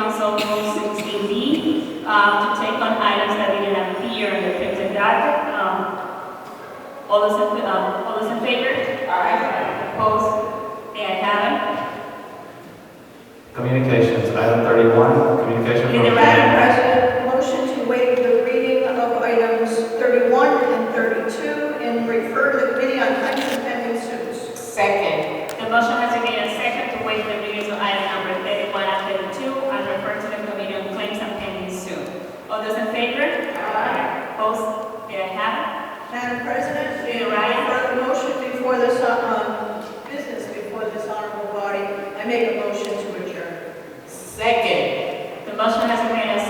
Local 16B, um, to take on items that we didn't have here and they picked it that. Um, All those in, um, all those in favor? Aye. Opposed? May I have it? Communications, item thirty-one, communication Is from. it Madam right? President, motion to waive the reading of items 31 and 32 and refer to the Committee on Claims and Pending Suits. Second. The motion has been made and second to waive the reading of item number 31 and 32 and refer to the committee on claims and pending suit. All those in favor? Aye. Opposed? May I have Madam President, we You're right. refer the motion before this, uh, um, business before this honorable body. I make a motion to adjourn. Second. it? The motion has been made and Um, uh,